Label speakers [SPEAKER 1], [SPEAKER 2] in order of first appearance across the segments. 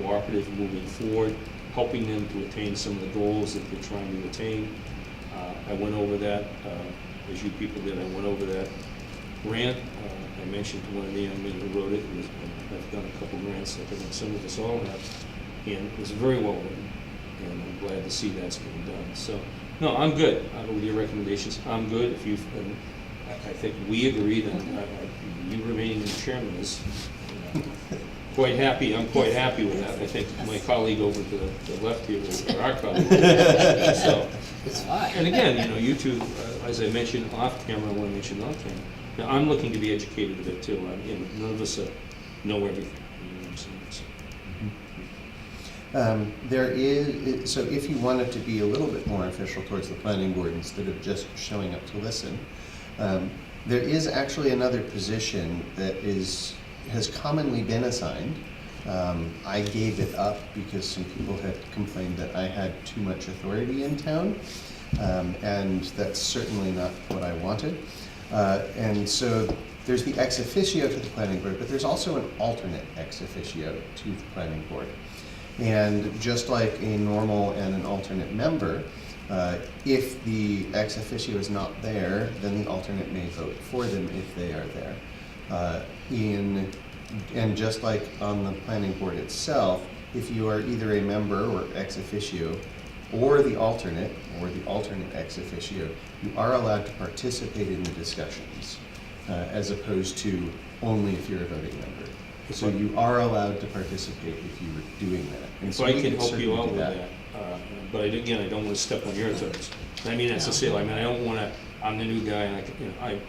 [SPEAKER 1] cooperative moving forward, helping them to attain some of the goals that they're trying to attain. Uh, I went over that, uh, as you people did, I went over that grant. Uh, I mentioned to one of the young men who wrote it, and I've done a couple grants, I think some of us all have, and it was very well written, and I'm glad to see that's being done. So, no, I'm good uh, with your recommendations, I'm good. If you've, and I I think we agreed, and I- I- you remaining the chairman is uh, quite happy, I'm quite happy with that. I think my colleague over to the the left here, is- or our colleague, so.
[SPEAKER 2] It's fine.
[SPEAKER 1] And again, you know, you two, uh, as I mentioned off camera, I want to mention off camera, now, I'm looking to be educated a bit too, I'm, you know, none of us uh, know everything, you know what I'm saying? So,
[SPEAKER 3] Um, There is, so if you wanted to be a little bit more official towards the planning board instead of just showing up to listen, um, there is actually another position that is, has commonly been assigned. Um, I gave it up because some people had complained that I had too much authority in town, um, and that's certainly not what I wanted. Uh, And so there's the ex officio to the planning board, but there's also an alternate ex officio to the planning board. And just like a normal and an alternate member, uh, if the ex officio is not there, then the alternate may vote for them if they are there. Uh, In, and just like on the planning board itself, if you are either a member or ex officio, or the alternate, or the alternate ex officio, you are allowed to participate in the discussions, uh, as opposed to only if you're a voting member. So you are allowed to participate if you were doing that. And
[SPEAKER 1] So I
[SPEAKER 3] we
[SPEAKER 1] can help
[SPEAKER 3] certainly
[SPEAKER 1] you out
[SPEAKER 3] do
[SPEAKER 1] with that, uh, but I- again, I don't want to step on your toes. I mean, that's a sale, I mean, I don't want to, I'm the new guy, and I, can- you know, I,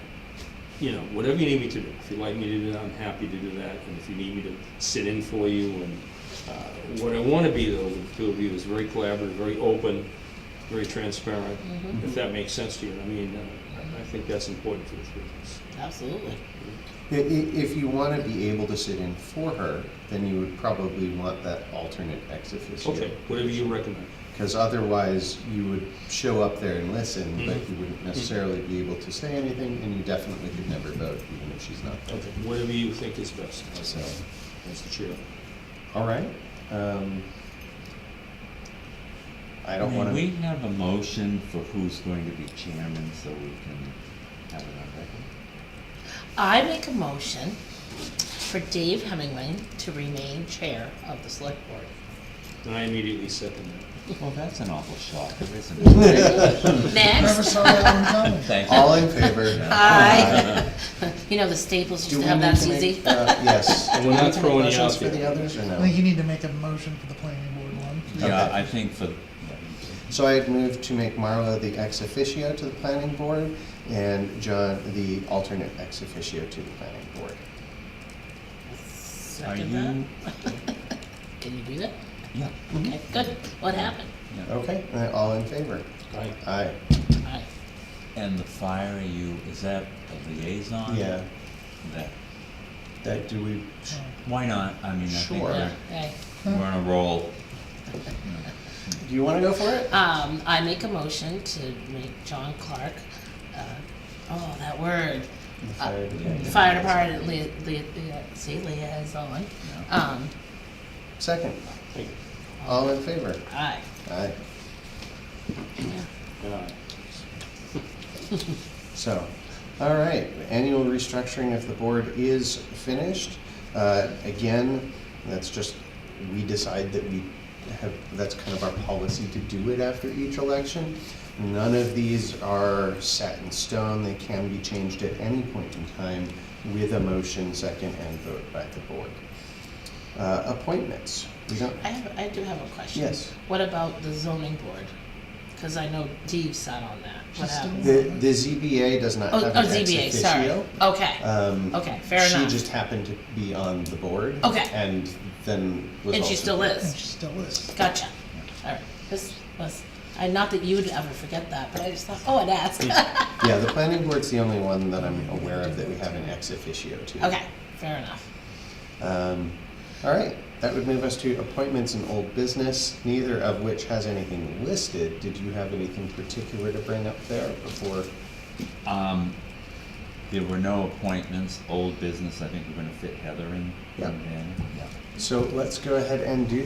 [SPEAKER 1] you know, whatever you need me to do. If you'd like me to do that, I'm happy to do that, and if you need me to sit in for you, and uh, what I want to be though, with the two of you, is very collaborative, very open, very transparent, if that makes sense to you, I mean, uh, I- I think that's important for the three of us.
[SPEAKER 2] Absolutely.
[SPEAKER 3] I- i- If you want to be able to sit in for her, then you would probably want that alternate ex officio.
[SPEAKER 1] Okay, whatever you recommend.
[SPEAKER 3] Because otherwise, you would show up there and listen, but
[SPEAKER 1] Mhm.
[SPEAKER 3] you wouldn't necessarily be able to say anything, and you definitely could never vote, even if she's not there.
[SPEAKER 1] Okay, whatever you think is best, as,
[SPEAKER 3] So,
[SPEAKER 1] uh, as the chair.
[SPEAKER 3] all right. um, I don't
[SPEAKER 4] May
[SPEAKER 3] want
[SPEAKER 4] we
[SPEAKER 3] to,
[SPEAKER 4] have a motion for who's going to be chairman so we can have it on record?
[SPEAKER 2] I make a motion for Dave Hemingway to remain chair of the select board.
[SPEAKER 1] And I immediately second that.
[SPEAKER 4] Well, that's an awful shocker, isn't it?
[SPEAKER 2] Next,
[SPEAKER 4] Thank you.
[SPEAKER 3] all in favor?
[SPEAKER 2] I, you know, the Staples
[SPEAKER 3] Do
[SPEAKER 2] used
[SPEAKER 3] we
[SPEAKER 2] to have
[SPEAKER 3] need
[SPEAKER 2] that,
[SPEAKER 3] to make-
[SPEAKER 2] Suzie.
[SPEAKER 3] uh, Yes.
[SPEAKER 1] And we're not
[SPEAKER 3] Do we need to make
[SPEAKER 1] throwing you
[SPEAKER 3] motions
[SPEAKER 1] out
[SPEAKER 3] For the
[SPEAKER 1] there.
[SPEAKER 3] others, or no?
[SPEAKER 5] I think you need to make a motion for the planning board one.
[SPEAKER 4] Yeah,
[SPEAKER 3] Okay.
[SPEAKER 4] I think for,
[SPEAKER 3] So I had moved to make Marla the ex officio to the planning board and John the alternate ex officio to the planning board.
[SPEAKER 4] are
[SPEAKER 2] Second
[SPEAKER 4] you?
[SPEAKER 2] that. Can you do that?
[SPEAKER 4] Yeah,
[SPEAKER 2] Okay, good. What happened?
[SPEAKER 4] yeah.
[SPEAKER 3] Okay, uh, all in favor?
[SPEAKER 1] Aye.
[SPEAKER 3] Aye.
[SPEAKER 2] Aye.
[SPEAKER 4] And the fire, are you, is that a liaison?
[SPEAKER 3] Yeah,
[SPEAKER 4] That,
[SPEAKER 3] that, do we,
[SPEAKER 5] Oh,
[SPEAKER 4] why not? I mean, I think
[SPEAKER 3] Sure.
[SPEAKER 4] we're,
[SPEAKER 2] Aye.
[SPEAKER 4] we're on a roll.
[SPEAKER 3] do you wanna go for it?
[SPEAKER 2] Um, I make a motion to make John Clark, uh, oh, that word, Uh,
[SPEAKER 3] The Uh, fire
[SPEAKER 2] the
[SPEAKER 3] department.
[SPEAKER 2] fire department, lia- lia- lia- see, liaison.
[SPEAKER 4] Yeah.
[SPEAKER 2] Um,
[SPEAKER 3] Second,
[SPEAKER 1] Thank you.
[SPEAKER 3] all in favor?
[SPEAKER 2] aye.
[SPEAKER 3] Aye.
[SPEAKER 2] Yeah.
[SPEAKER 1] Yeah.
[SPEAKER 3] So, all right, annual restructuring of the board is finished. Uh, Again, that's just, we decide that we have, that's kind of our policy to do it after each election. None of these are set in stone, they can be changed at any point in time with a motion, second, and vote by the board. Uh, Appointments, we don't,
[SPEAKER 2] I have, I do have a question.
[SPEAKER 3] Yes.
[SPEAKER 2] What about the zoning board? Because I know Dave sat on that. What
[SPEAKER 5] Just a-
[SPEAKER 2] happened?
[SPEAKER 3] the, the ZBA does not
[SPEAKER 2] Oh,
[SPEAKER 3] have
[SPEAKER 2] oh,
[SPEAKER 3] an ex officio.
[SPEAKER 2] ZBA, sorry. Okay,
[SPEAKER 3] Um,
[SPEAKER 2] Okay, fair
[SPEAKER 3] she
[SPEAKER 2] enough.
[SPEAKER 3] just happened to be on the board.
[SPEAKER 2] Okay.
[SPEAKER 3] And then was
[SPEAKER 2] and she
[SPEAKER 3] also-
[SPEAKER 2] still
[SPEAKER 5] And
[SPEAKER 2] is.
[SPEAKER 5] she still is.
[SPEAKER 2] Gotcha. All right. This was, I, not that you would ever forget that, but I just thought, oh, I'd ask.
[SPEAKER 3] Yeah, the planning board's the only one that I'm aware of that we have an ex officio to.
[SPEAKER 2] Okay, fair enough.
[SPEAKER 3] Um, all right, that would move us to appointments and old business, neither of which has anything listed. Did you have anything particular to bring up there before?
[SPEAKER 4] Um, There were no appointments, old business, I think we're gonna fit Heather in.
[SPEAKER 3] Yeah.
[SPEAKER 4] in there. Yeah.
[SPEAKER 3] So let's go ahead and do